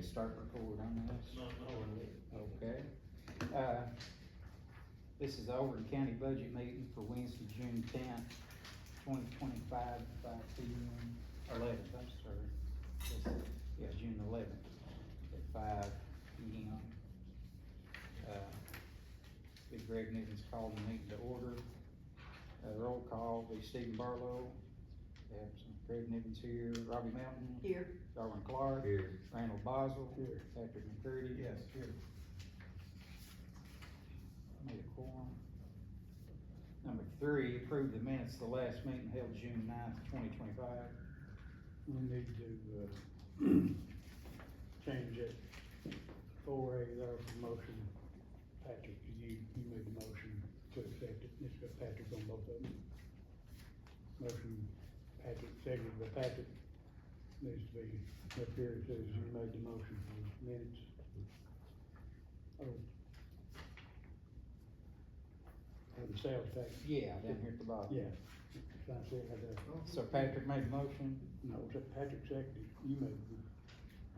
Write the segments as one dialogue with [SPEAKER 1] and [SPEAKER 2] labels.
[SPEAKER 1] to start record on this?
[SPEAKER 2] No, no, we're good.
[SPEAKER 1] Okay. Uh, This is the Auburn County Budget Meeting for Wednesday, June tenth, twenty twenty-five, five P M, eleventh, I'm sorry. This- Yeah, June eleventh, at five P M. Uh, Big Greg Nivens called the meeting to order. Uh, roll call, be Stephen Barlow, absent, Greg Nivens here, Robbie Mountain,
[SPEAKER 3] Here,
[SPEAKER 1] Darwin Clark.
[SPEAKER 4] Here.
[SPEAKER 1] Randall Boswell.
[SPEAKER 4] Here.
[SPEAKER 1] Patrick McCurdy.
[SPEAKER 4] Yes, here.
[SPEAKER 1] Need a quorum. Number three, approve the minutes of the last meeting held June 9th, twenty twenty-five.
[SPEAKER 4] We need to, uh, change it. Four A, there was a motion. Patrick, you, you made the motion to accept it. It's got Patrick on both of them. Motion, Patrick, seconded by Patrick. Needs to be up here. It says you made the motion for the minutes. Oh. And the sales tax.
[SPEAKER 1] Yeah, down here at the bottom.
[SPEAKER 4] Yeah. Trying to say how that.
[SPEAKER 1] So Patrick made a motion,
[SPEAKER 4] No, it's that Patrick seconded, you made, the-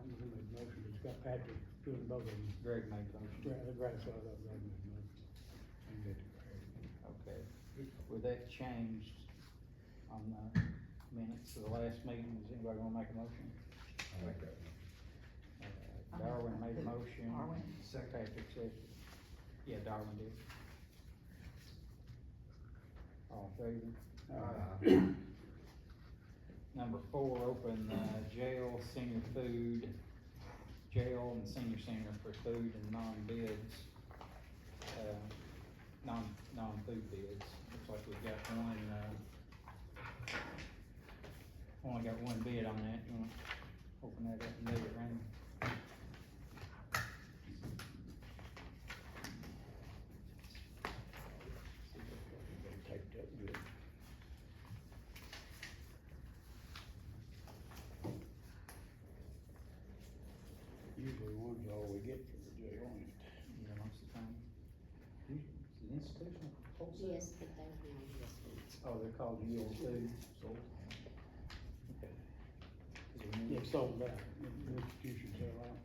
[SPEAKER 4] I'm gonna make the motion, it's got Patrick doing both of them.
[SPEAKER 1] Greg made a motion.
[SPEAKER 4] Right, right, so I thought Brad made the motion. And that declared.
[SPEAKER 1] Okay. With that changed on the minutes of the last meeting, is anybody gonna make a motion?
[SPEAKER 5] I like that.
[SPEAKER 1] Uh, Darwin made a motion.
[SPEAKER 3] Darwin.
[SPEAKER 1] Second. Patrick seconded. Yeah, Darwin did. All in favor?
[SPEAKER 5] Uh,
[SPEAKER 1] Number four, open uh, jail, senior food, jail and senior center for food and non-bids. uh, Non, non-food bids. Looks like we've got one, uh, only got one bid on that. You wanna open that up and move it around?
[SPEAKER 4] uh, They taped up good. Usually one's all we get from the jail, ain't it?
[SPEAKER 1] You know, most of the time. Is it institutional wholesale?
[SPEAKER 3] yes, but there's no yes.
[SPEAKER 1] Oh, they're called yield food. Sold. Okay. Is there any-
[SPEAKER 4] It's sold out, the institution uh, sell out.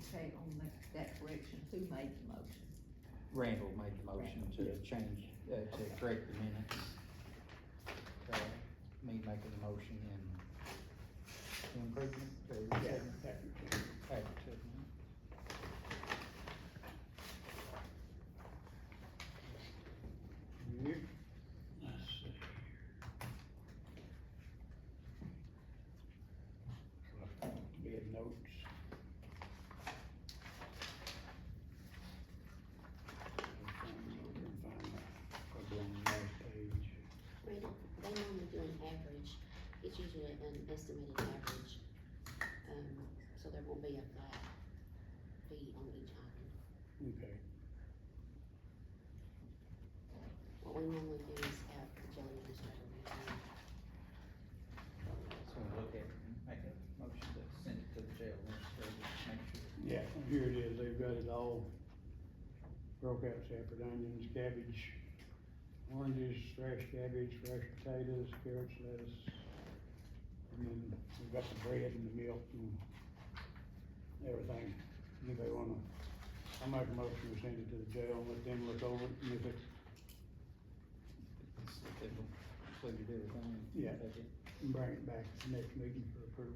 [SPEAKER 3] Okay, on that, that correction, who made the motion?
[SPEAKER 1] Randall made the motion to change, uh, to correct the minutes. Uh, Me making the motion and improvement, uh, second,
[SPEAKER 4] Patrick.
[SPEAKER 1] Patrick second.
[SPEAKER 4] Yep. Let's see here. Bid notes. Probably on the last page.
[SPEAKER 6] They don't- they normally do an average, it's usually an estimated average, um, so there won't be a flat fee on each item.
[SPEAKER 4] Okay,
[SPEAKER 6] What we normally do is have the jail administrator review.
[SPEAKER 1] So we'll look at, it and make a motion to send it to the jail administrator, make sure.
[SPEAKER 4] yeah, here it is, they've got it all broke out separate, onions, cabbage, oranges, fresh cabbage, fresh potatoes, carrots, lettuce. And then we've got the bread and the milk and everything. If they wanna, I make a motion to send it to the jail, let them look over it, and if it,
[SPEAKER 1] it's- it will Include everything.
[SPEAKER 4] Yeah.
[SPEAKER 1] Take it.
[SPEAKER 4] bring it back to the next meeting for approval.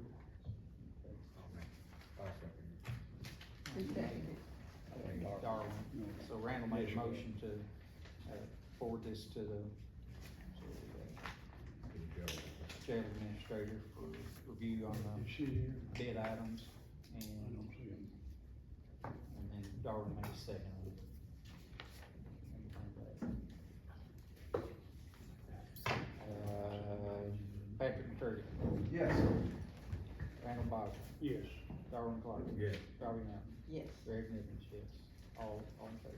[SPEAKER 5] I'll second it.
[SPEAKER 3] Who seconded it?
[SPEAKER 1] Darwin, so Randall made a
[SPEAKER 4] Yes, you did.
[SPEAKER 1] motion to, uh, forward this to the, to the
[SPEAKER 5] Good job.
[SPEAKER 1] jail administrator for review on the
[SPEAKER 4] Is she here?
[SPEAKER 1] bid items,
[SPEAKER 4] I
[SPEAKER 1] and,
[SPEAKER 4] don't see him.
[SPEAKER 1] and then Darwin made a second one. Uh, Patrick McCurdy,
[SPEAKER 5] Yes.
[SPEAKER 1] Randall Boswell,
[SPEAKER 4] Yes.
[SPEAKER 1] Darwin Clark,
[SPEAKER 5] Yes.
[SPEAKER 1] Darby Mountain,
[SPEAKER 3] Yes.
[SPEAKER 1] Greg Nivens, yes, all, all in favor.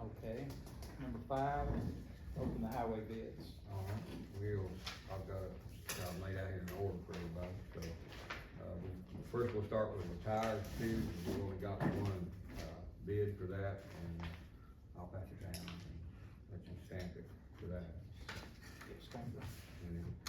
[SPEAKER 1] Okay, number five, open the highway bids.
[SPEAKER 5] All right, we'll, I've got, it- got it laid out here in order for everybody, so, uh, we- first we'll start with the tires, two, we only got one, uh, bid for that, and I'll pass it down and let you stamp it for that.
[SPEAKER 1] Yes, thank you.
[SPEAKER 5] And then